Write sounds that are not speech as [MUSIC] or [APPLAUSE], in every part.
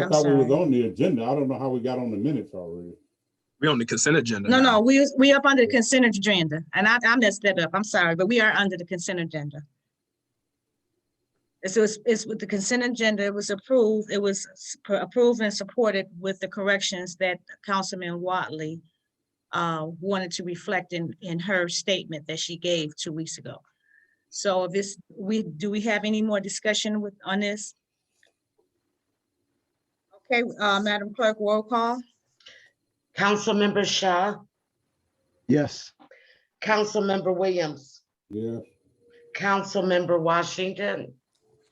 I I'm thought we was sorry. on the agenda. I don't know how we got on the minutes already. We on the consent agenda. No, now. no, we, we up under the consent agenda, and I, I messed that up, I'm sorry, but we are under the consent agenda. So it's, it's with the consent agenda, it was approved, it was s- pr- approved and supported with the corrections that Councilman Watley uh, wanted to reflect in, in her statement that she gave two weeks ago. So if this, we, do we have any more discussion with, on this? Okay, uh, Madam Clerk, roll call? Councilmember Shaw, Yes. Councilmember Williams, Yeah, Councilmember Washington,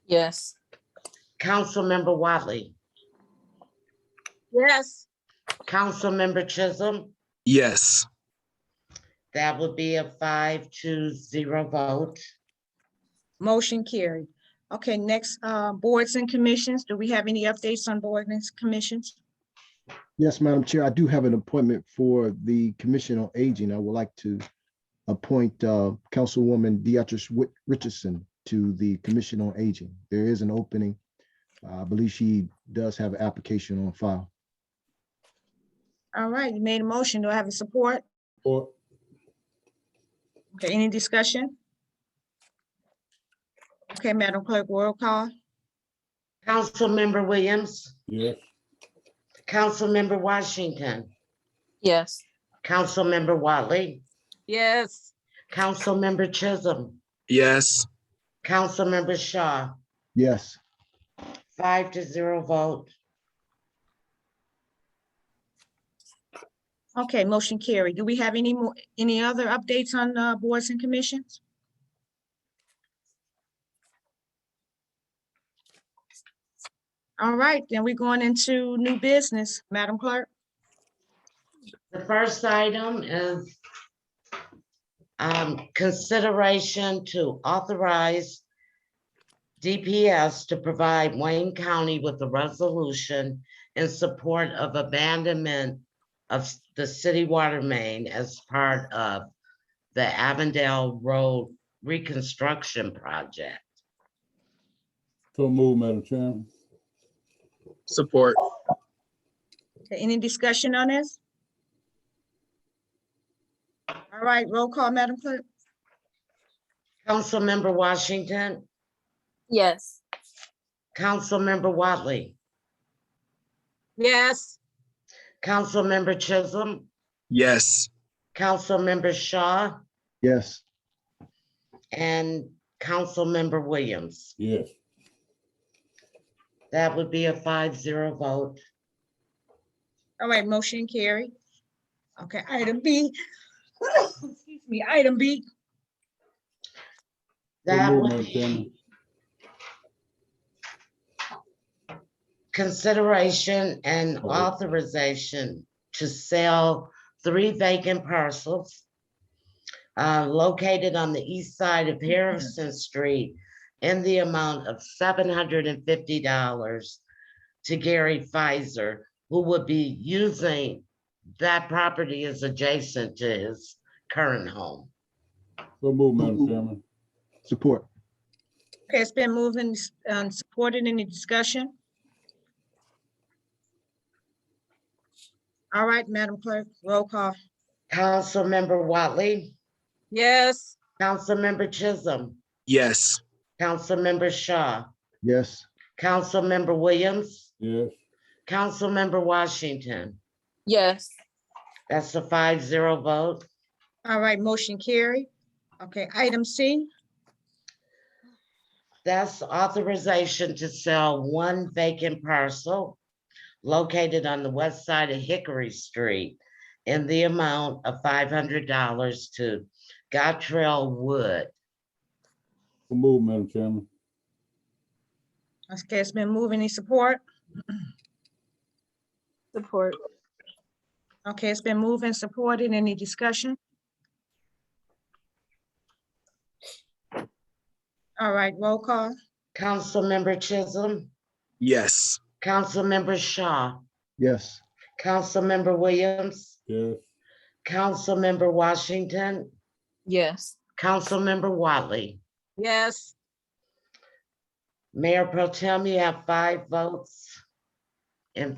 Yes. Councilmember Watley, Yes. Councilmember Chisholm. Yes, That would be a five to zero vote. Motion carried. Okay, next, uh, boards and commissions. Do we have any updates on boards and commissions? Yes, Madam Chair, I do have an appointment for the Commission on Aging. I would like to appoint uh, Councilwoman Deatrice Whit- Richardson to the Commission on Aging. There is an opening. I believe she does have an application on file. All right, you made a motion. Do I have a support? or Okay, any discussion? Okay, Madam Clerk, roll call? Councilmember Williams, yeah, Councilmember Washington, Yes. Councilmember Watley, Yes. Councilmember Chisholm, yes, Councilmember Shaw, Yes, five to zero vote. Okay, motion carried. Do we have any more, any other updates on, uh, boards and commissions? All right, then we're going into new business. Madam Clerk? The first item is um, consideration to authorize DPS to provide Wayne County with a resolution in support of abandonment of s- the city water main as part of the Avondale Road Reconstruction Project. so move, Madam Chairman. support. Okay, Any discussion on this? All right, roll call, Madam Clerk. Councilmember Washington, Yes. Councilmember Watley, Yes. Councilmember Chisholm, Yes, Councilmember Shaw, yes, And Councilmember Williams, Yes, that would be a five zero vote. All right, motion carried. Okay, item B. [COUGHS] Excuse me, item B. That move, would Madam be Chairman. consideration and Oh. authorization to sell three vacant parcels uh, located on the east side of Harrison Street in the amount of seven hundred and fifty dollars to Gary Pfizer, who would be using that property is adjacent to his current home. so move, Madam Chairman. support. Okay, it's been moved and s- and supported. Any discussion? All right, Madam Clerk, roll call. Councilmember Watley, Yes. Councilmember Chisholm, yes, Councilmember Shaw, Yes, Councilmember Williams, Yes, Councilmember Washington. Yes. That's a five zero vote. All right, motion carried. Okay, item C. That's authorization to sell one vacant parcel located on the west side of Hickory Street in the amount of five hundred dollars to Gottrell Wood. so move, Madam Chairman. Okay, it's been moved. Any support? Support. Okay, it's been moved and supported. Any discussion? All right, roll call. Councilmember Chisholm, yes, Councilmember Shaw, yes, Councilmember Williams, Yes, Councilmember Washington, Yes. Councilmember Watley, Yes. Mayor Pro Tem, you have five votes. and